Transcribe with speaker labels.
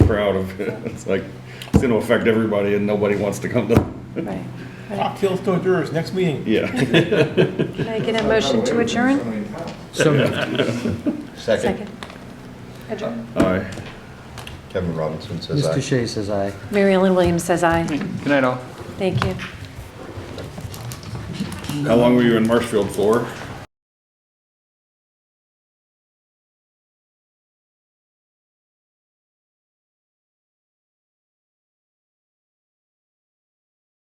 Speaker 1: proud of. It's like, it's gonna affect everybody and nobody wants to come to,
Speaker 2: Right. right.
Speaker 3: Cocktails to jurors, next meeting.
Speaker 1: yeah.
Speaker 2: Can I get a motion to adjourn?
Speaker 4: So moved.
Speaker 5: Second,
Speaker 2: Second. Adjourn.
Speaker 1: Aye.
Speaker 5: Kevin Robinson says aye.
Speaker 4: Mr. Shea says aye.
Speaker 2: Mary Ellen Williams says aye.
Speaker 6: Good night, all.
Speaker 2: Thank you.
Speaker 1: How long were you in Marshfield for?